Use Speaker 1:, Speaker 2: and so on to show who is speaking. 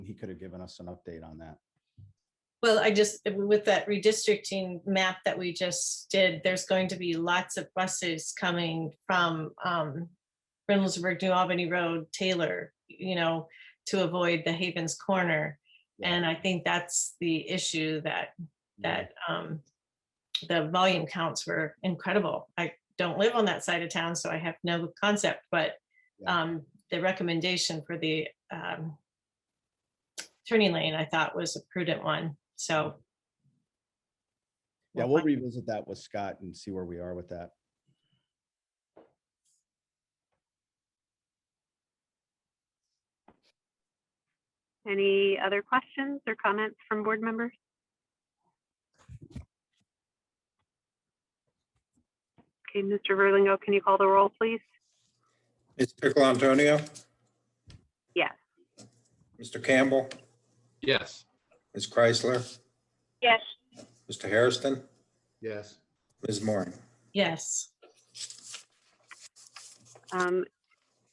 Speaker 1: he could have given us an update on that.
Speaker 2: Well, I just, with that redistricting map that we just did, there's going to be lots of buses coming from um. Reynoldsburg, New Albany Road, Taylor, you know, to avoid the Havens Corner. And I think that's the issue that that um. The volume counts were incredible. I don't live on that side of town, so I have no concept, but
Speaker 1: Yeah.
Speaker 2: um, the recommendation for the um. Turning lane, I thought was a prudent one, so.
Speaker 1: Yeah, we'll revisit that with Scott and see where we are with that.
Speaker 3: Any other questions or comments from board members? Okay, Mr. Verlingo, can you call the roll, please?
Speaker 4: Ms. Pickle Antonio?
Speaker 3: Yes.
Speaker 4: Mr. Campbell?
Speaker 5: Yes.
Speaker 4: Ms. Chrysler?
Speaker 3: Yes.
Speaker 4: Mr. Hairston?
Speaker 5: Yes.
Speaker 4: Ms. Moore?
Speaker 2: Yes,
Speaker 3: Um,